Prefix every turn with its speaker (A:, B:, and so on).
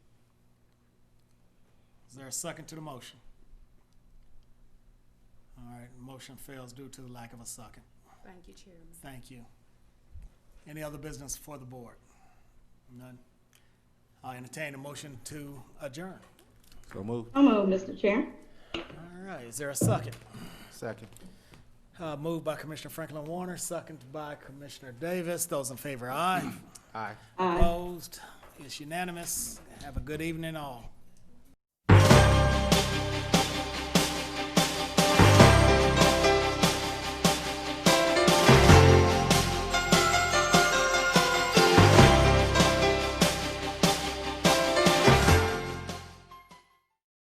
A: Is there a second to the motion? All right, motion fails due to the lack of a second.
B: Thank you, Chairman.
A: Thank you. Any other business for the board? None. I entertain a motion to adjourn.
C: So move.
D: So moved, Mr. Chair.
A: All right, is there a second?
C: Second.
A: Uh, moved by Commissioner Franklin Warner, seconded by Commissioner Davis. Those in favor, aye.
C: Aye.
D: Aye.
A: Opposed? It's unanimous. Have a good evening, all.